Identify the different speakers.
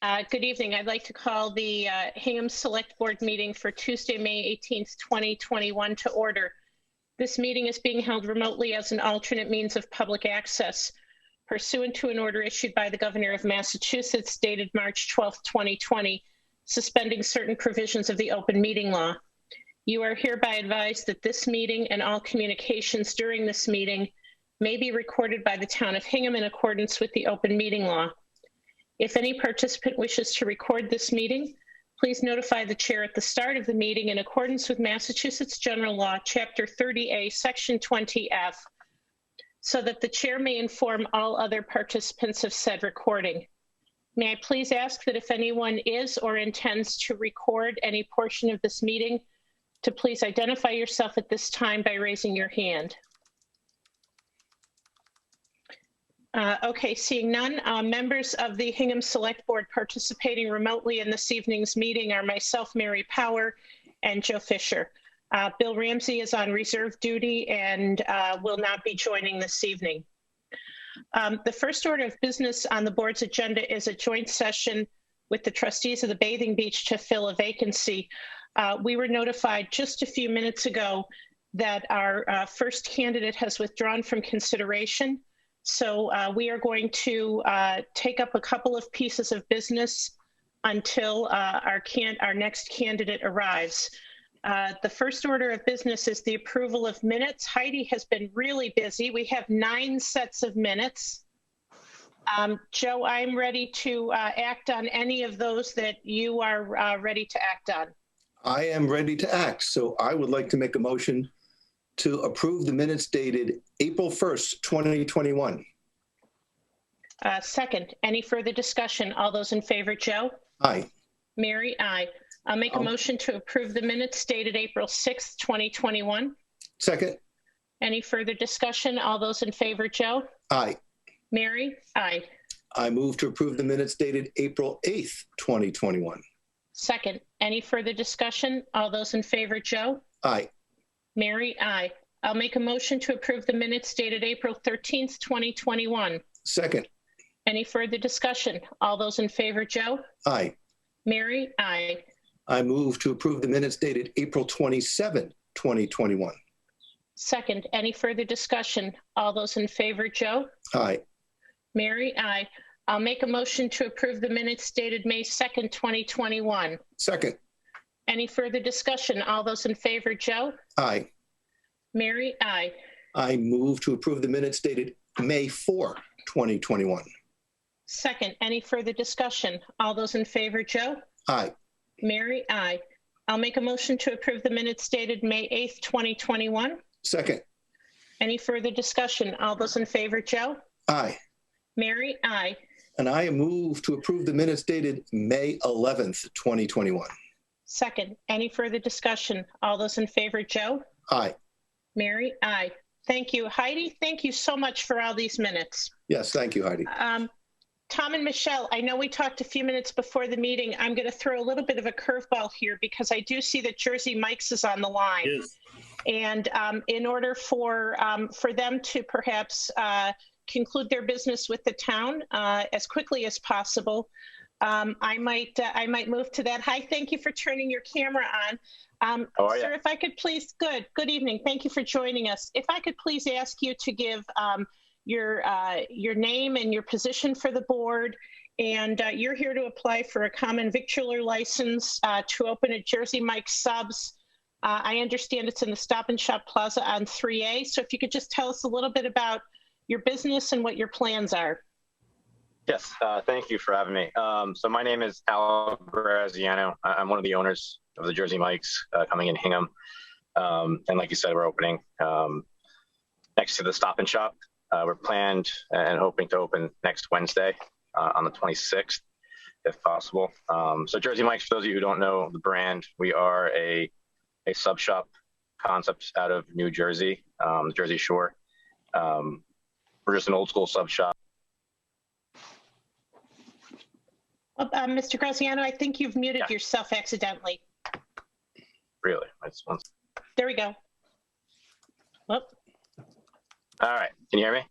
Speaker 1: Uh, Good evening. I'd like to call the uh, Hingham Select Board meeting for Tuesday, May 18th, 2021 to order. This meeting is being held remotely as an alternate means of public access pursuant to an order issued by the Governor of Massachusetts dated March 12th, 2020, suspending certain provisions of the open meeting law. You are hereby advised that this meeting and all communications during this meeting may be recorded by the town of Hingham in accordance with the open meeting law. If any participant wishes to record this meeting, please notify the chair at the start of the meeting in accordance with Massachusetts General Law, Chapter 30A, Section 20F, so that the chair may inform all other participants of said recording. May I please ask that if anyone is or intends to record any portion of this meeting, to please identify yourself at this time by raising your hand. Uh, Okay, seeing none, uh, members of the Hingham Select Board participating remotely in this evening's meeting are myself, Mary Power, and Joe Fisher. Uh, Bill Ramsey is on reserve duty and uh, will not be joining this evening. Um, The first order of business on the board's agenda is a joint session with the trustees of the Bathing Beach to fill a vacancy. Uh, We were notified just a few minutes ago that our uh, first candidate has withdrawn from consideration. So uh, we are going to uh, take up a couple of pieces of business until uh, our can, our next candidate arrives. Uh, The first order of business is the approval of minutes. Heidi has been really busy. We have nine sets of minutes. Um, Joe, I'm ready to uh, act on any of those that you are uh, ready to act on.
Speaker 2: I am ready to act, so I would like to make a motion to approve the minutes dated April 1st, 2021.
Speaker 1: Uh, Second, any further discussion? All those in favor, Joe?
Speaker 2: Aye.
Speaker 1: Mary, aye. I'll make a
Speaker 2: I'll-
Speaker 1: motion to approve the minutes dated April 6th, 2021.
Speaker 2: Second?
Speaker 1: Any further discussion? All those in favor, Joe?
Speaker 2: Aye.
Speaker 1: Mary? Aye.
Speaker 2: I move to approve the minutes dated April 8th, 2021.
Speaker 1: Second, any further discussion? All those in favor, Joe?
Speaker 2: Aye.
Speaker 1: Mary? Aye. I'll make a motion to approve the minutes dated April 13th, 2021.
Speaker 2: Second?
Speaker 1: Any further discussion? All those in favor, Joe?
Speaker 2: Aye.
Speaker 1: Mary? Aye.
Speaker 2: I move to approve the minutes dated April 27th, 2021.
Speaker 1: Second, any further discussion? All those in favor, Joe?
Speaker 2: Aye.
Speaker 1: Mary? Aye. I'll make a motion to approve the minutes dated May 2nd, 2021.
Speaker 2: Second?
Speaker 1: Any further discussion? All those in favor, Joe?
Speaker 2: Aye.
Speaker 1: Mary? Aye.
Speaker 2: I move to approve the minutes dated May 4, 2021.
Speaker 1: Second, any further discussion? All those in favor, Joe?
Speaker 2: Aye.
Speaker 1: Mary? Aye. I'll make a motion to approve the minutes dated May 8th, 2021.
Speaker 2: Second?
Speaker 1: Any further discussion? All those in favor, Joe?
Speaker 2: Aye.
Speaker 1: Mary? Aye.
Speaker 2: And I move to approve the minutes dated May 11th, 2021.
Speaker 1: Second, any further discussion? All those in favor, Joe?
Speaker 2: Aye.
Speaker 1: Mary? Aye. Thank you. Heidi, thank you so much for all these minutes.
Speaker 2: Yes, thank you, Heidi.
Speaker 1: Um, Tom and Michelle, I know we talked a few minutes before the meeting. I'm going to throw a little bit of a curveball here because I do see that Jersey Mike's is on the line.
Speaker 3: Yes,
Speaker 1: And um, in order for, um, for them to perhaps uh, conclude their business with the town uh, as quickly as possible, um, I might, uh, I might move to that. Hi, thank you for turning your camera on. Um,
Speaker 3: How are ya?
Speaker 1: Sir, if I could please, good, good evening. Thank you for joining us. If I could please ask you to give um, your, uh, your name and your position for the board. And uh, you're here to apply for a common victualler license uh, to open a Jersey Mike's Subs. Uh, I understand it's in the Stop and Shop Plaza on 3A. So if you could just tell us a little bit about your business and what your plans are.
Speaker 3: yes. Uh, thank you for having me. Um, so my name is Al Graziano. I- I'm one of the owners of the Jersey Mike's uh, coming in Hingham. Um, and like you said, we're opening um, next to the Stop and Shop. Uh, we're planned and hoping to open next Wednesday uh, on the 26th, if possible. Um, so Jersey Mike's, for those of you who don't know the brand, we are a, a sub shop concept out of New Jersey, um, the Jersey Shore. Um, we're just an old school sub shop.
Speaker 1: Uh, uh, Mr. Graziano, I think you've muted
Speaker 3: Yeah.
Speaker 1: yourself accidentally.
Speaker 3: Really, that's one.
Speaker 1: There we go. Whoop.
Speaker 3: All right, can you hear me?